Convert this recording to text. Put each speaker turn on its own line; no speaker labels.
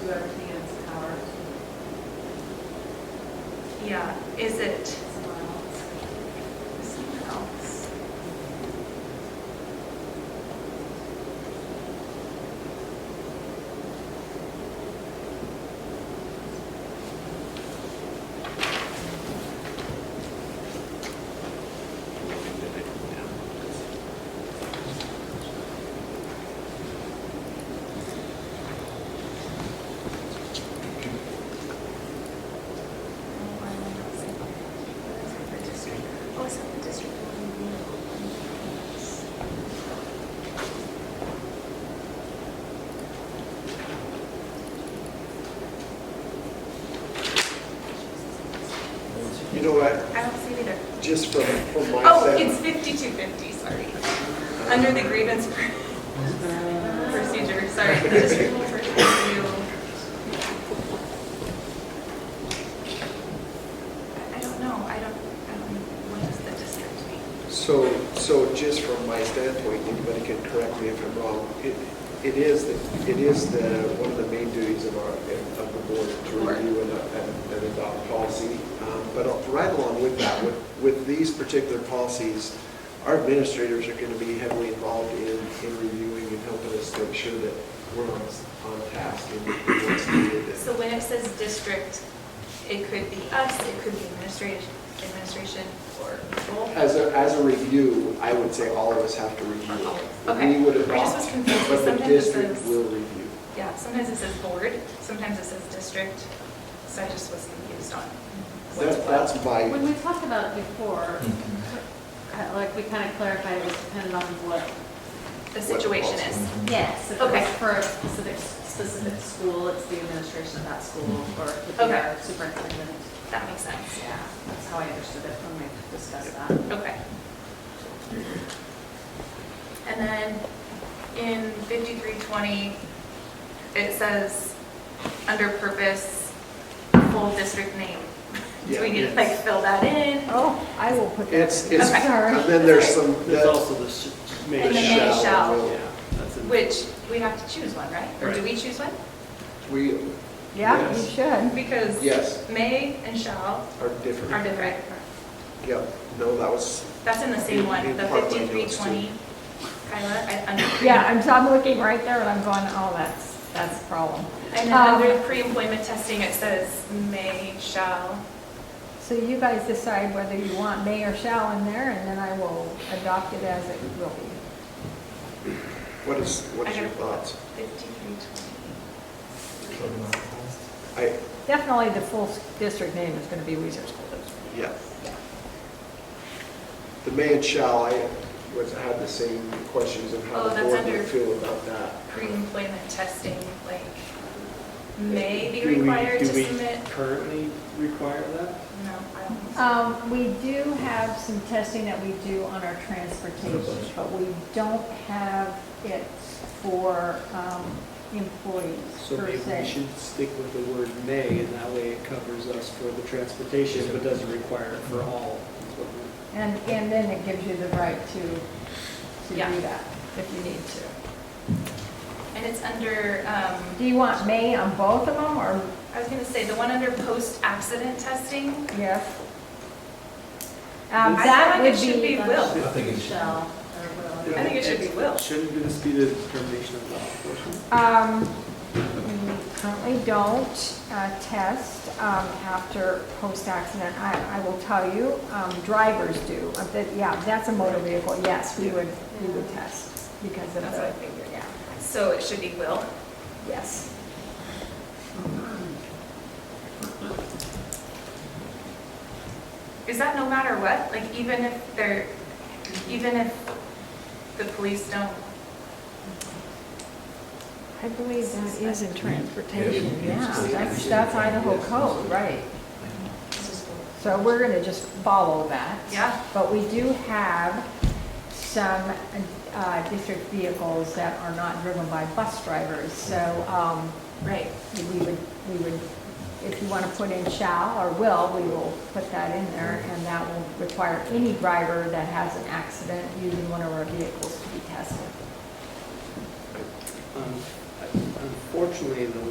whoever cans ours,
Yeah, is it
someone else.
someone else?
Oh, it's not the district one.
You know what,
I don't see it either.
just from, from my
Oh,
side-
it's fifty-two fifty, sorry. Under the grievance pr- procedure, sorry, district review. I- I don't know, I don't, I don't, what does the district mean?
So, so just from my standpoint, anybody can correct me if I'm wrong, it, it is, the- it is the, one of the main duties of our, of the board to
Board.
review and, uh, and- and adopt policy. Um, But right along with that, with, with these particular policies, our administrators are going to be heavily involved in, in reviewing and helping us make sure that we're on, on task and what's needed.
So when it says district, it could be us, it could be administration, administration, or both?
As a, as a review, I would say all of us have to review. it.
Okay.
We would
I just was
adopt,
confused,
but the
sometimes it
district
says-
will review.
Yeah, sometimes it says board, sometimes it says district, so I just was confused on what's
That-
what.
That's
When
my,
we talked about it before, uh, like, we kind of clarified it was dependent on what,
the situation is.
yes, if it was
Okay.
for a specific, specific school, it's the administration of that school, or it could be
Okay.
our superintendent.
That makes sense.
Yeah, that's how I understood it when we discussed that.
Okay. And then in 5320, it says, under purpose, full district name. Do we need to like fill that in?
Oh, I will put that.
it's,
in.
it's,
Okay.
and then there's some,
There's
that's
also the sh-
And
main
the may
shell.
shall.
will.
Yeah, that's in-
Which, we have to choose one, right? Or do
Right.
we choose one?
We,
Yeah, you
Yes.
should.
Because
yes,
may and shall
are
are
different.
different.
Yep, no, that was,
That's in the same one, the
In part of my notes, too.
5320. Kyla, I- under.
Yeah, I'm, so I'm looking right there and I'm going, oh, that's, that's a problem.
And then
Um,
under pre-employment testing, it says may, shall.
So you guys decide whether you want may or shall in there, and then I will adopt it as it will be.
what is, what
I
is your
gotta pull up
thoughts?
5320.
I,
Definitely the full s- district name is going to be Weezer School District.
yeah. The may and shall, I was, had the same questions of
Oh,
how the
that's
board would
under-
feel about that.
Pre-employment testing, like, may be
Do we-
required to
do we
submit?
currently require that?
No, I don't think so.
Um, we do have some testing that we do on our transportation, but we don't have it for, um, employees
So
per
maybe we
se.
should stick with the word may, and that way it covers us for the transportation, but doesn't require it for all.
And, and then it gives you the right to, to
Yeah.
do that if you need to.
And it's under, um,
Do you want may on both of them or
I was gonna say, the one under post-accident testing?
yes?
I
Um,
feel
that
like
would
it should be
be,
will.
I think it should. Shall, or will.
I think it should be will.
Shouldn't this be the determination of law enforcement?
um, we currently don't, uh, test, um, after post-accident. I, I will tell you, um, drivers do. Uh, that- Yeah, that's a motor vehicle, yes, we would, we would test because of
That's what I
the,
figured.
yeah,
So it should be will.
yes.
Is that no matter what? Like even if they're, even if the police don't?
I believe that is in transportation,
Yes.
yeah, that's, that's Idaho code, right. So we're gonna just follow that.
Yeah.
But we do have some, uh, district vehicles that are not driven by bus drivers, so, um,
Right.
we would, we would, if you wanna put in shall or will, we will put that in there, and that will require any driver that has an accident using one of our vehicles to be tested.
Um, Unfortunately, the